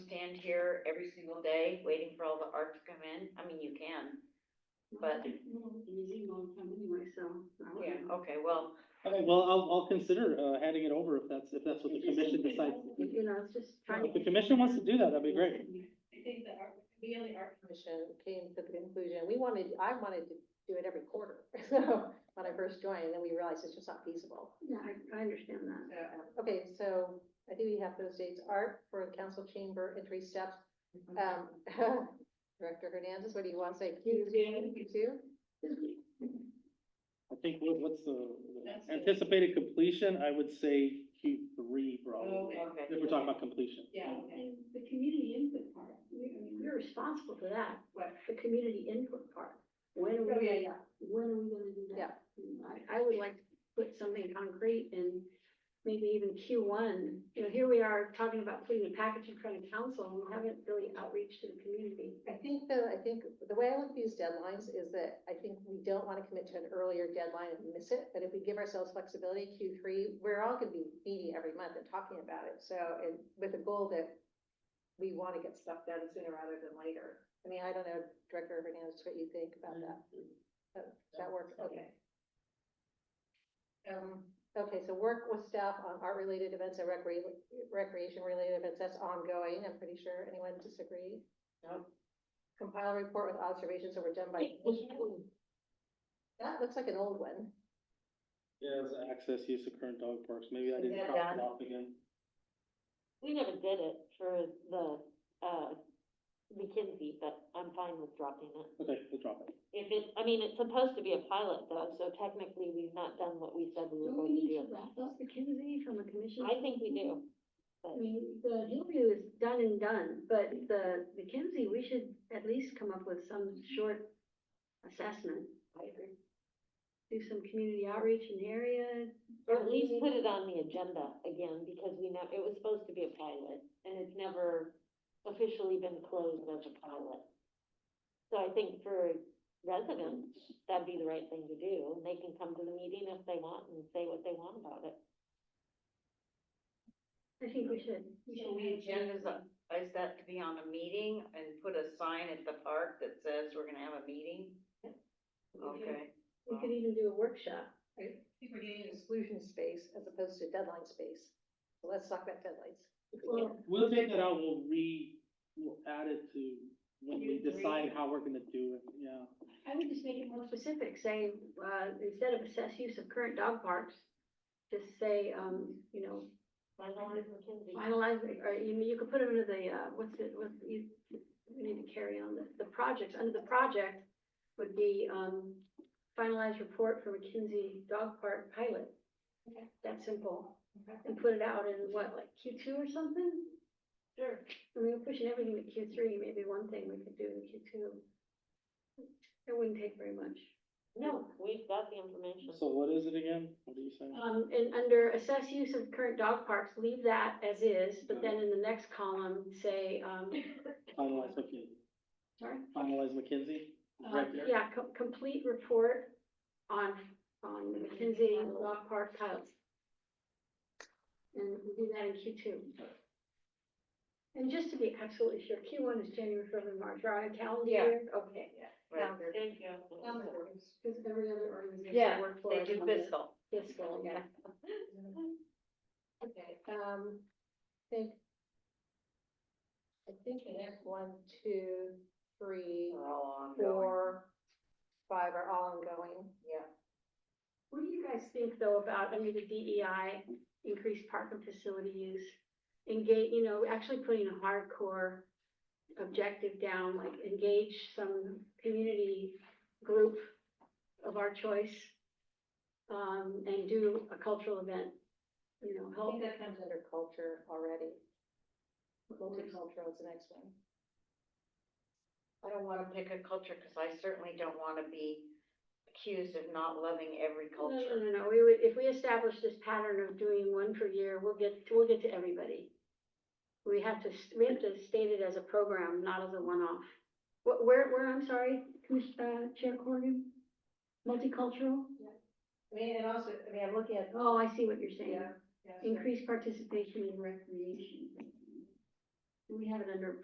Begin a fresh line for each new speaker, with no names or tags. here every single day, waiting for all the art to come in? I mean, you can, but,
Easy long time anyway, so. I don't
yeah,
know.
okay, well,
Okay, well, I'll, I'll consider, uh, handing it over if that's, if that's what the
It just
commission
seems
decides.
like, You know, it's just trying.
If the commission wants to do that, that'd be great.
I think the art, we only art commission came to the conclusion, we wanted, I wanted to do it every quarter, so, when I first joined, and then we realized it's just not feasible.
Yeah, I, I understand that.
Okay, so I do have those dates, art for the council chamber entry steps, um, Director Hernandez, what do you want to say? Q2? Q2?
I think, what, what's the the
That's it.
anticipated completion? I would say Q three probably,
okay.
if we're talking about completion.
Yeah,
The community input part, we, I mean, we're responsible for that.
What?
The community input part. When are we,
Oh,
gonna- when are we gonna do that? I, I would like to put something concrete and maybe even Q one. You know, here we are talking about putting a package in front of council, and we haven't really outreach to the community.
I think though, I think the way I look at these deadlines is that I think we don't want to commit to an earlier deadline and miss it. But if we give ourselves flexibility, Q three, we're all gonna be meeting every month and talking about it. So, and with the goal that we want to get stuff done sooner rather than later. I mean, I don't know, Director Hernandez, what you think about that? That- Mm-hmm. That works, okay. Um, okay, so work with staff on art-related events and recre- recreation-related events, that's ongoing, I'm pretty sure. Anyone disagree?
No.
Compile a report with observations that were done by. That looks like an old one.
Yeah, it's access use of current dog parks. Maybe I
Is
didn't
that
cross
done?
it off again.
We never did it for the, uh, McKinsey, but I'm fine with dropping it.
Okay, we'll drop it.
If it, I mean, it's supposed to be a pilot though, so technically we've not done what we said we were
Don't we
going to
need to
do.
wrap up the community from a commission?
I think we do.
I mean, the Hillview is done and done, but the McKinsey, we should at least come up with some short assessment.
I agree.
Do some community outreach in the area.
Or at least put it on the agenda again, because we know, it was supposed to be a pilot, and it's never officially been closed as a pilot. So I think for residents, that'd be the right thing to do, and they can come to the meeting if they want and say what they want about it.
I think we should.
Can we agendas, up- is that to be on a meeting and put a sign at the park that says we're gonna have a meeting? Okay.
We could even do a workshop.
I think we're getting exclusion space as opposed to deadline space. So let's talk about deadlines.
Well,
We'll take that out, we'll re, we'll add it to when we
Q3.
decide how we're gonna do it, yeah.
I would just make it more specific, say, uh, instead of assess use of current dog parks, just say, um, you know,
Finalize McKinsey.
finalize, or you, you could put it under the, uh, what's it, what, you, we need to carry on the, the projects, under the project would be, um, finalized report for McKinsey Dog Park pilot.
Okay.
That simple,
Okay.
and put it out in what, like Q two or something?
Sure.
I mean, we're pushing everything to Q three, maybe one thing we could do in Q two. It wouldn't take very much.
No, we've got the information.
So what is it again? What do you say?
Um, and under assess use of current dog parks, leave that as is, but then in the next column, say, um,
Finalize McKinsey,
sorry?
finalize McKinsey?
Uh,
Right there.
Yeah, co- complete report on, on the McKinsey Dog Park pilots. And we do that in Q two. And just to be absolutely sure, Q one is January, February, March, right, on calendar
Yeah.
year? Okay,
Right.
Thank you.
because every other organization
Yeah,
works for.
They
us
do
on this
fiscal.
Fiscal, yeah.
Okay, um, I think. I think the next one, two, three,
We're all ongoing.
four, five are all ongoing.
Yeah.
What do you guys think though about under the DEI, increased park and facility use? Engage, you know, actually putting a hardcore objective down, like engage some community group of our choice. Um, and do a cultural event, you know,
I
help.
think that comes under culture already. Multicultural is the next one.
I don't wanna pick a culture, cause I certainly don't wanna be accused of not loving every
No, no,
culture.
no, no, we would, if we establish this pattern of doing one per year, we'll get, we'll get to everybody. We have to, s- we have to state it as a program, not as a one-off. What, where, where, I'm sorry, Commissioner, Chair Corrigan? Multicultural?
I mean, and also, I mean, I'm looking at.
Oh, I see what you're saying.
yeah, so-
Increased participation in recreation. Do we have it under